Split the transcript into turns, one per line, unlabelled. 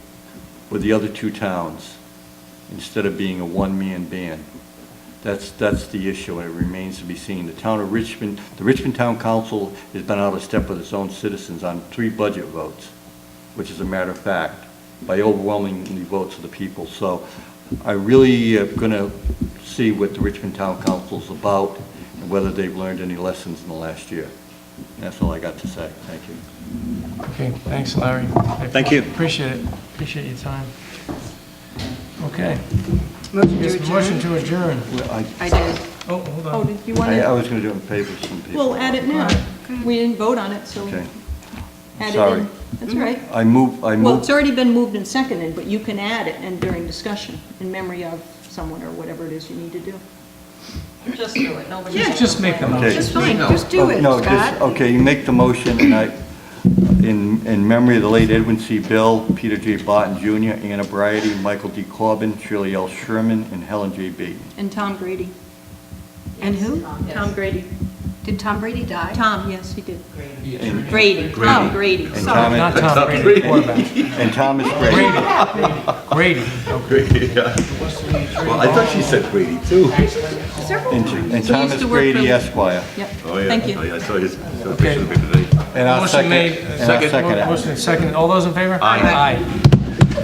with the other two towns, instead of being a one-man band. That's, that's the issue, and it remains to be seen. The town of Richmond, the Richmond Town Council has been out of step with its own citizens on three budget votes, which is a matter of fact, by overwhelmingly votes of the people. So I really am going to see what the Richmond Town Council's about, and whether they've learned any lessons in the last year. That's all I got to say. Thank you.
Okay, thanks, Larry.
Thank you.
Appreciate it, appreciate your time. Okay,
Motion
Yes,
to
motion
adjourn?
to adjourn.
Well, I,
I did.
Oh, hold
Oh,
on.
did you want
I I
to?
was going to do it in favor of some people.
We'll add it now. We didn't vote on it, so
Okay.
add it
Sorry.
in. That's all right.
I move, I
Well,
move,
it's already been moved and seconded, but you can add it and during discussion in memory of someone or whatever it is you need to do.
Just do it, nobody's.
Yeah.
Just make the motion.
Okay.
Just fine, just do
Oh,
it,
No, just,
Scott.
okay, you make the motion, and I, in, in memory of the late Edwin C. Bell, Peter J. Barton Jr., Anna Briety, Michael D. Corbin, Shirley L. Sherman, and Helen J. Beaton.
And Tom Grady.
And who?
Tom Grady.
Did Tom Brady die?
Tom, yes, he did.
And-
Grady. Tom Grady.
And
Sorry.
Thomas-
Not Tom Brady, quarterback.
And Thomas Gray.
Brady, okay.
Well, I thought she said Brady, too.
Several
And
times.
and
He used
Thomas
to work for-
Grady Esquire.
Yep,
Oh, yeah.
thank
Oh,
you.
yeah, I saw his, saw a picture of the paper today.
And I'll
Motion
second,
made. uh,
and I'll second it.
Motion seconded, all those in favor?
Aye.
Aye.